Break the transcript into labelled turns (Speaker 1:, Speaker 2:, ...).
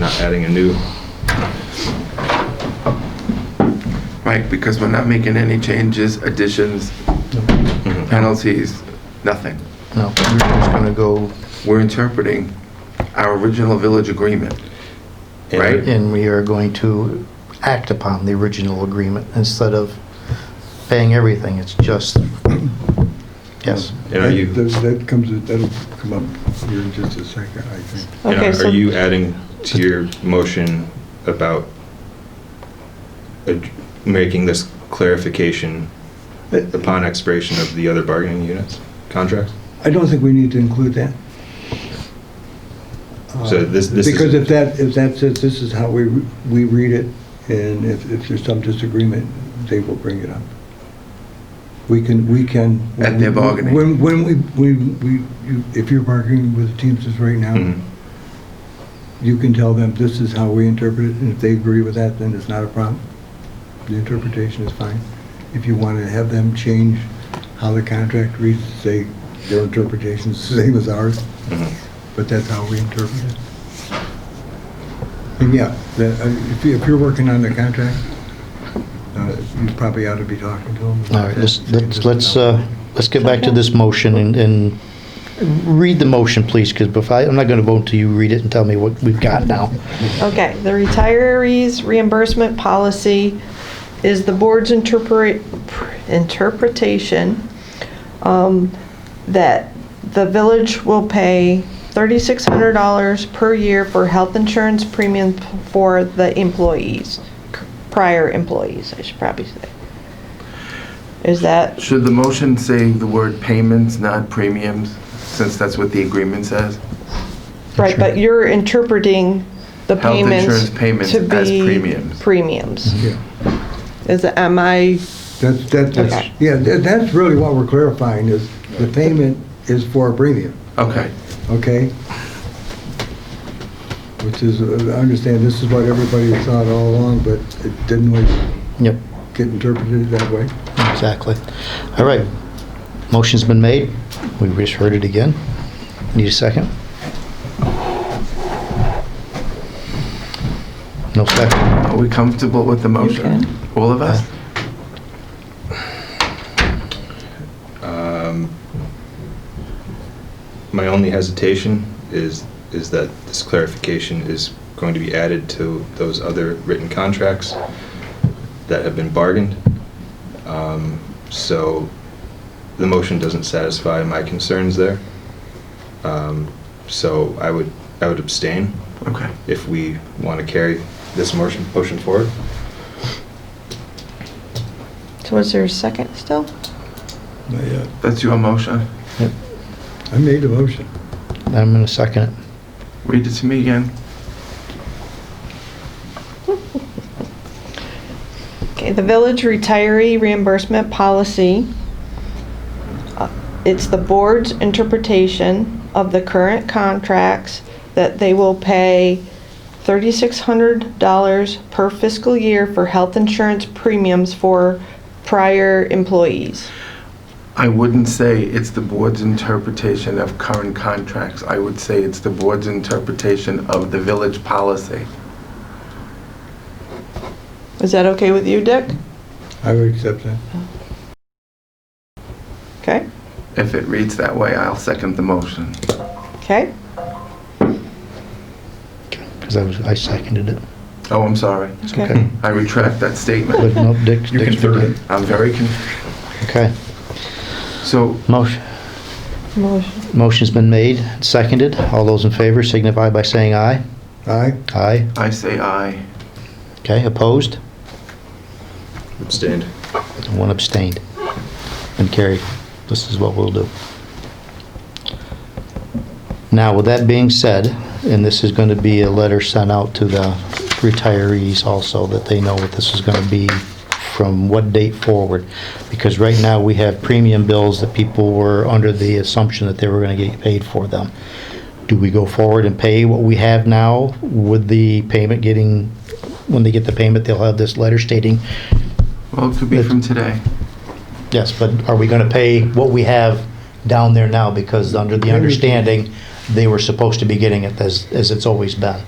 Speaker 1: not adding a new,
Speaker 2: Mike, because we're not making any changes, additions, Mm-hmm. penalties, nothing.
Speaker 3: No, we're just gonna go,
Speaker 2: We're interpreting our original village agreement. Right.
Speaker 3: and we are going to act upon the original agreement instead of paying everything, it's just, yes.
Speaker 1: and are you,
Speaker 4: That- That comes, that'll come up here in just a second, I think.
Speaker 1: and
Speaker 5: Okay,
Speaker 1: are-
Speaker 5: so-
Speaker 1: are you adding to your motion about ad- making this clarification upon expiration of the other bargaining units contract?
Speaker 4: I don't think we need to include that. Uh,
Speaker 1: So this- this is-
Speaker 4: Because if that, if that says this is how we, we read it, and if, if there's some disagreement, they will bring it up. We can, we can.
Speaker 2: At their bargaining.
Speaker 4: When, when we, we, we, you- if you're bargaining with the Teamsters right now,
Speaker 1: Mhm.
Speaker 4: you can tell them this is how we interpret it, and if they agree with that, then it's not a problem. The interpretation is fine. If you want to have them change how the contract reads, say, their interpretation is the same as ours,
Speaker 1: Mhm.
Speaker 4: but that's how we interpret it. And yeah, the- uh, if you- if you're working on the contract, uh, you probably ought to be talking to them.
Speaker 3: All right, let's, let's, let's, uh, let's get back to this motion and, and read the motion, please, because before, I'm not gonna vote until you read it and tell me what we've got now.
Speaker 5: Okay, the retirees reimbursement policy is the board's interpret, interpretation um, that the village will pay thirty-six hundred dollars per year for health insurance premium for the employees, prior employees, I should probably say. Is that,
Speaker 2: Should the motion say the word payments, not premiums, since that's what the agreement says?
Speaker 5: right, but you're interpreting the
Speaker 2: Health
Speaker 5: payments
Speaker 2: insurance payments
Speaker 5: to
Speaker 2: as
Speaker 5: be
Speaker 2: premiums. Mm-hmm.
Speaker 5: Premiums.
Speaker 4: Yeah,
Speaker 5: Is, am I?
Speaker 4: That's, that- that's,
Speaker 5: Okay.
Speaker 4: yeah, tha- that's really what we're clarifying is the payment is for a premium.
Speaker 2: Okay.
Speaker 4: okay? Which is, uh, I understand this is what everybody thought all along, but it didn't always
Speaker 3: Yep,
Speaker 4: get interpreted that way.
Speaker 3: exactly. All right, motion's been made, we just heard it again. Need a second? No second?
Speaker 2: Are we comfortable with the motion?
Speaker 5: can.
Speaker 2: All of us?
Speaker 1: Um, My only hesitation is, is that this clarification is going to be added to those other written contracts that have been bargained. Um, So the motion doesn't satisfy my concerns there. Um, So I would, I would abstain
Speaker 2: Okay.
Speaker 1: if we want to carry this motion, motion forward.
Speaker 5: So is there a second still?
Speaker 4: Not yet.
Speaker 2: That's your motion.
Speaker 4: I made a motion.
Speaker 3: I'm gonna second it.
Speaker 2: Read it to me again.
Speaker 5: Okay, the village retiree reimbursement policy. Uh, It's the board's interpretation of the current contracts that they will pay $3,600 per fiscal year for health insurance premiums for prior employees.
Speaker 2: I wouldn't say it's the board's interpretation of current contracts. I would say it's the board's interpretation of the village policy.
Speaker 5: Is that okay with you, Dick?
Speaker 4: I would accept that.
Speaker 5: Okay,
Speaker 2: If it reads that way, I'll second the motion.
Speaker 5: okay.
Speaker 3: Because I was, I seconded it.
Speaker 2: Oh, I'm sorry.
Speaker 3: It's
Speaker 5: Okay.
Speaker 3: okay.
Speaker 2: I retract that statement.
Speaker 3: But no, Dick,
Speaker 1: You can
Speaker 3: Dick's been
Speaker 1: third
Speaker 3: good.
Speaker 1: it.
Speaker 2: I'm very confused.
Speaker 3: Okay.
Speaker 2: So
Speaker 3: Motion,
Speaker 5: Motion.
Speaker 3: motion's been made, seconded. All those in favor signify by saying aye.
Speaker 4: Aye?
Speaker 3: Aye.
Speaker 2: I say aye.
Speaker 3: Okay, opposed?
Speaker 1: Abstained.
Speaker 3: And One abstained. And carried. This is what we'll do. Now, with that being said, and this is going to be a letter sent out to the retirees also, that they know what this is going to be from what date forward. Because right now, we have premium bills that people were under the assumption that they were going to get paid for them. Do we go forward and pay what we have now with the payment getting, when they get the payment, they'll have this letter stating,
Speaker 2: Well, it could be from today.
Speaker 3: Yes, but are we gonna pay what we have down there now? Because under the understanding, they were supposed to be getting it as, as it's always been.